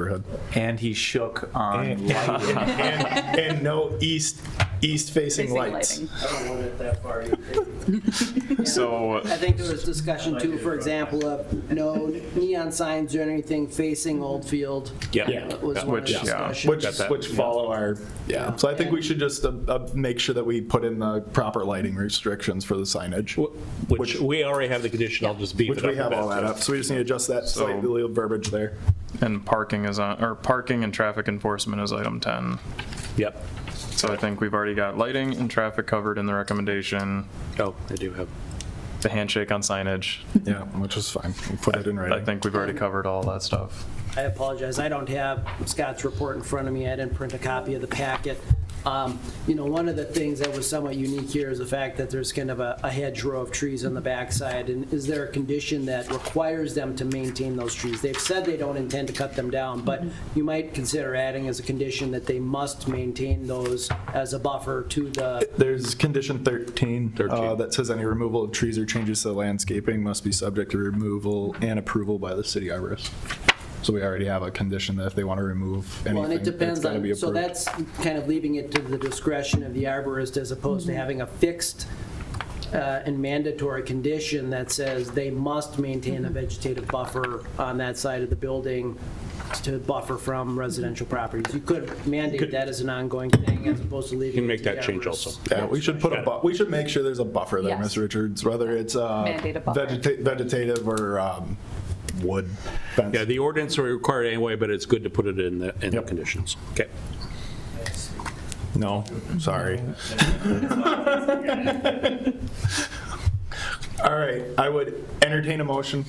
neighborhood. And he shook on. And, and- and no east, east-facing Facing lights. lighting. I don't want it that far. either. So, I think there was discussion too, for example, of no neon signs or anything facing Old Field. Yeah. That was one of the Which- yeah. discussions. which, which follow our, yeah. So I think we should just uh, uh, make sure that we put in the proper lighting restrictions for the signage, Which we already have the condition, I'll just beef which it up. we have all that up. So we just need to adjust that slightly little verbiage there. And parking is on, or parking and traffic enforcement is item 10. Yep. So I think we've already got lighting and traffic covered in the recommendation, Oh, I do have. the handshake on signage. Yeah, which is fine. We Put it in I writing. think we've already covered all that stuff. I apologize, I don't have Scott's report in front of me, I didn't print a copy of the packet. Um, You know, one of the things that was somewhat unique here is the fact that there's kind of a a hedgerow of trees on the backside, and is there a condition that requires them to maintain those trees? They've said they don't intend to cut them down, but you might consider adding as a condition that they must maintain those as a buffer to the, There's condition 13 uh, that says any removal of trees or changes to landscaping must be subject to removal and approval by the city arborist. So we already have a condition that if they want to remove well, and anything, it it's depends got to be on, so approved. that's kind of leaving it to the discretion of the arborist as opposed to having a fixed uh, and mandatory condition that says they must maintain a vegetative buffer on that side of the building to buffer from residential properties. You could mandate that as an ongoing thing as opposed to leaving. Can it make to the that change arborist. also. Yeah, we should put a, bu- we should make sure there's a buffer there, Yes. Ms. Richards, whether it's uh, Mandate a buffer. vegeta- vegetative or um, wood fence. Yeah, the ordinance are required anyway, but it's good to put it in the, in the conditions. Okay. No, sorry. All right, I would entertain a motion.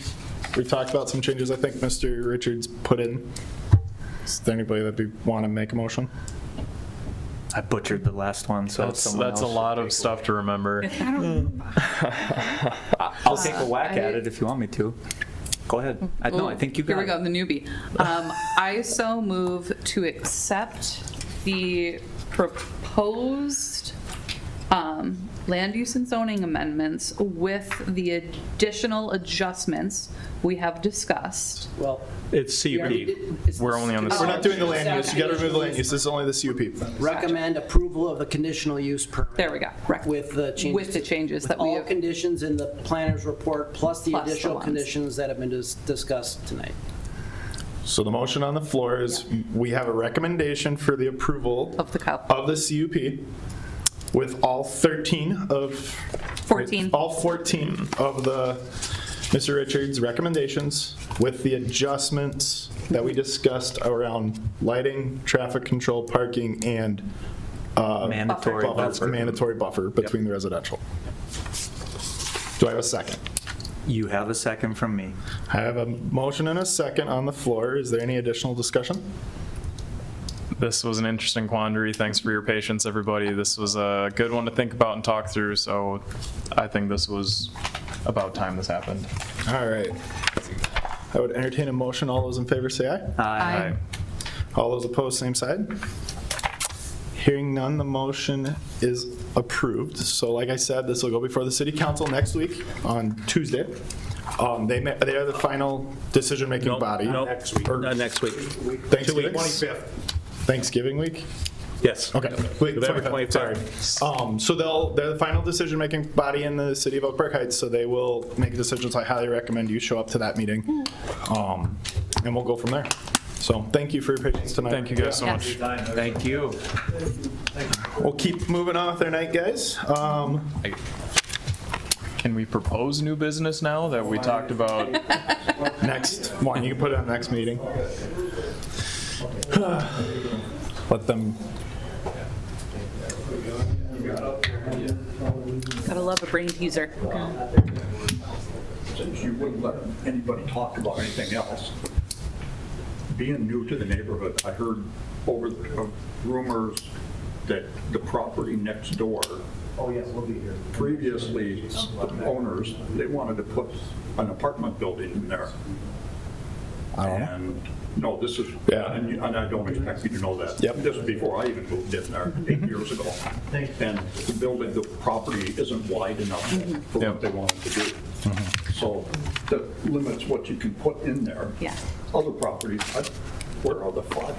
We talked about some changes I think Mr. Richards put in. Is there anybody that we want to make a motion? I butchered the last one, so That's, that's a lot of stuff to remember. I'll take a whack at I- Mm. it if you want me to. Go ahead. I, Uh, no, I think you got Here we go, it. the newbie. Um, I so move to accept the proposed um, land use and zoning amendments with the additional adjustments we have discussed. Well. It's we already CUP. did- it's- We're only on the- We're not doing the land use, you got to remove the land use, this is only the CUP. Recommend approval of the conditional use permit. There we go. Rec- With the changes. With the changes with that we All have- conditions in the planner's report, plus the Plus the additional ones. conditions that have been dis- discussed tonight. So the motion on the floor is, we have a recommendation for the approval Of the cup. of the CUP with all 13 of 14. All 14 of the Mr. Richards' recommendations with the adjustments that we discussed around lighting, traffic control, parking, and uh, Mandatory buffer- buffer. Mandatory buffer between the residential. Do I have a second? You have a second from me. I have a motion and a second on the floor. Is there any additional discussion? This was an interesting quandary. Thanks for your patience, everybody. This was a good one to think about and talk through, so I think this was about time this happened. All right. I would entertain a motion. All those in favor say aye. I All those opposed, same side. Hearing none, the motion is approved. So like I said, this will go before the city council next week on Tuesday. Um, They ma- they are the final decision-making body. No, Next week. Or Not next week. Thanksgiving? Two weeks. Thanksgiving week? Yes. Okay. Wait, November sorry, 25th. sorry. Um, So they'll, they're the final decision-making body in the city of Oak Park Heights, so they will make decisions. I highly recommend you show up to that meeting. Um, And we'll go from there. So thank you for your patience tonight. Thank you guys so much. Thank you. We'll keep moving on with our night, guys. Um, Can we propose new business now that we talked about? next one, you can put it on next meeting. Let them, Gotta love a brain teaser. since you wouldn't let anybody talk about anything else, being new to the neighborhood, I heard over the- uh, rumors that the property next door. Oh, yes, we'll be here. Previously, the owners, they wanted to put an apartment building in there. I don't know. And, no, this is, Yeah. and you- and I don't expect you to know that. Yep. This is before I even moved in there, eight years ago. And the building, the property isn't wide enough for what they wanted to do. So that limits what you can put in there. Yeah. Other properties, I where are the floods?